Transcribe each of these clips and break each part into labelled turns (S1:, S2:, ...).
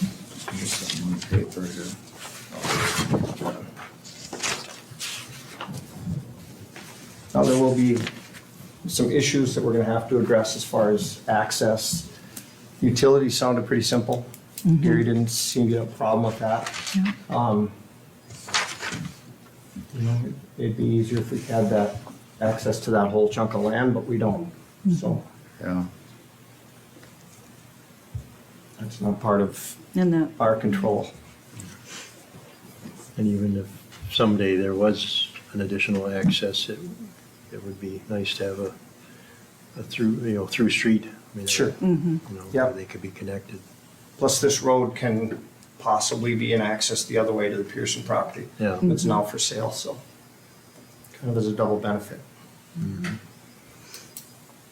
S1: There's something on the paper here. Oh.
S2: Now, there will be some issues that we're gonna have to address as far as access. Utilities sounded pretty simple. Gary didn't seem to have a problem with that. Um, You know, it'd be easier if we had that, access to that whole chunk of land, but we don't. So
S1: Yeah,
S2: that's not part of
S3: And the,
S2: our control.
S4: And even if someday there was an additional access, it, it would be nice to have a, a through, you know, through street. I mean,
S2: Sure.
S4: You know,
S2: Yeah.
S4: where they could be connected.
S2: Plus, this road can possibly be an access the other way to the Pearson property.
S4: Yeah.
S2: It's now for sale, so kind of as a double benefit.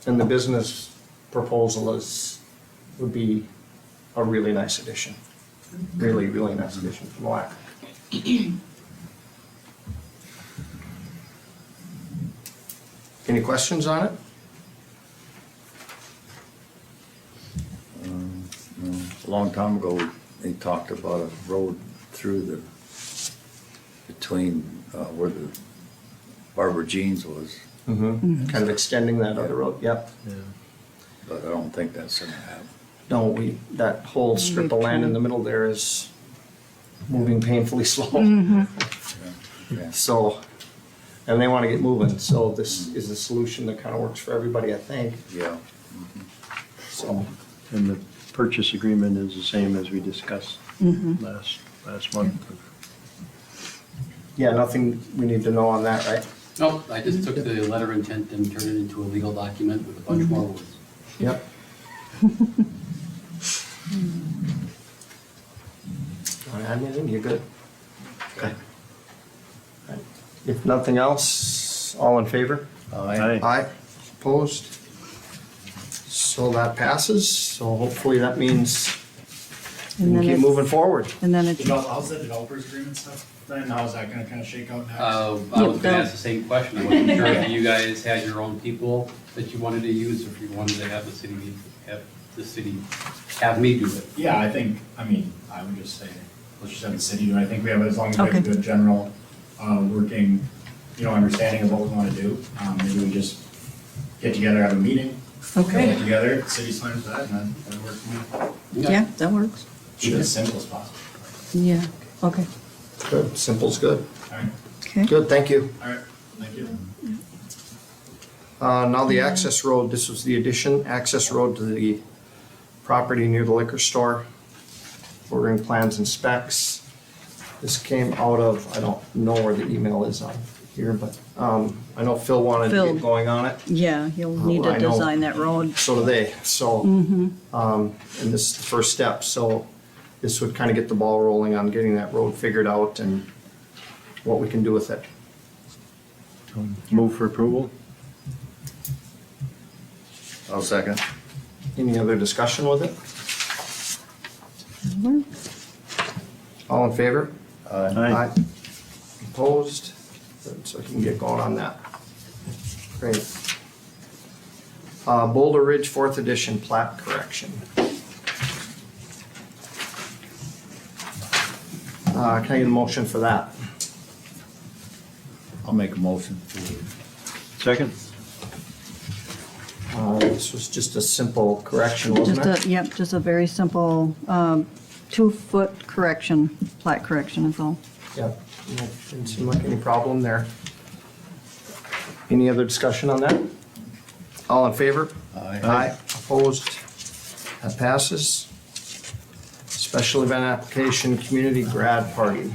S2: And the business proposal is, would be a really nice addition. Really, really nice addition from Malacca. Any questions on it?
S1: no, um, a long time ago, they talked about a road through the, between, uh, where the Barbara Jeans was,
S2: Mm-hmm. Kind of extending that other road, yep.
S4: Yeah.
S1: but I don't think that's gonna happen.
S2: No, we, that whole strip of land in the middle there is moving painfully slow.
S1: Yeah.
S2: So, and they want to get moving, so this is a solution that kind of works for everybody, I think,
S1: Yeah,
S2: so.
S4: And the purchase agreement is the same as we discussed last, last month.
S2: Yeah, nothing we need to know on that, right?
S5: Nope, I just took the letter of intent and turned it into a legal document with a bunch more words.
S2: Yep. Want to add anything? You're good. Okay. If nothing else, all in favor?
S1: Aye.
S2: Aye, opposed. So that passes, so hopefully that means we
S3: And
S2: can
S3: then
S2: keep
S3: it's-
S2: moving forward.
S3: and then it's,
S6: Develop, how's the developers agreement stuff then? How's that gonna kinda shake out next?
S5: Uh, I was
S3: Yeah,
S5: gonna ask the same question, I wasn't sure if you guys had your own people that you wanted to use, or if you wanted to have the city, be- have the city, have me do it.
S6: Yeah, I think, I mean, I would just say, let's just have the city do it. I think we have, as long as we have a
S3: Okay.
S6: good general, uh, working, you know, understanding of what we wanna do, um, maybe we just get together, have a meeting. Get
S3: okay,
S6: together, city slams that, and then that'd work for me.
S3: yeah, that works.
S6: Keep it as simple as possible.
S3: Yeah, okay,
S2: Good, simple's good.
S6: All right,
S3: okay.
S2: Good, thank you.
S6: all right, thank you.
S2: Uh, now the access road, this was the addition, access road to the property near the liquor store. Ordering plans and specs. This came out of, I don't know where the email is on here, but, um, I know Phil wanted to
S3: Phil.
S2: get going on it.
S3: Yeah, you'll need
S2: Oh, I
S3: to
S2: know.
S3: design that road.
S2: so do they, so. Um, and this is the first step, so this would kind of get the ball rolling on getting that road figured out and what we can do with it.
S4: Um, Move for approval?
S1: I'll second.
S2: Any other discussion with it? All in favor?
S4: Aye.
S2: Opposed? So I can get going on that. Great. Uh, Boulder Ridge Fourth Edition plat correction. Uh, can I get a motion for that?
S1: I'll make a motion to,
S4: Second?
S2: Uh, This was just a simple correction,
S3: Just
S2: wasn't it?
S3: a, yep, just a very simple, um, two-foot correction, plat correction is all.
S2: Yep. No, Didn't seem like any problem there. Any other discussion on that? All in favor?
S1: Aye.
S2: Opposed? That passes. Special event application, community grad party.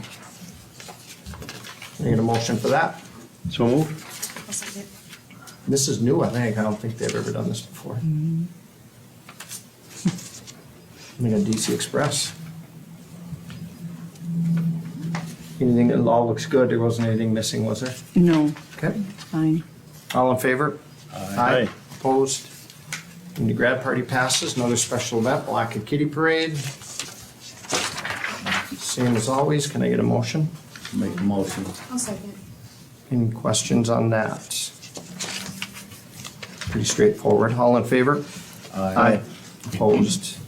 S2: Can I Need a motion for that?
S4: So move?
S2: This is new, I think. I don't think they've ever done this before. I mean, a DC Express. Anything, it all looks good. There wasn't anything missing, was there?
S3: No,
S2: Okay.
S3: fine.
S2: All in favor?
S4: Aye.
S2: Opposed? And the grad party passes. Another special event, Black and Kitty Parade. Same as always. Can I get a motion?
S1: make a motion.
S7: I'll second.
S2: Any questions on that? Pretty straightforward. All in favor? Opposed?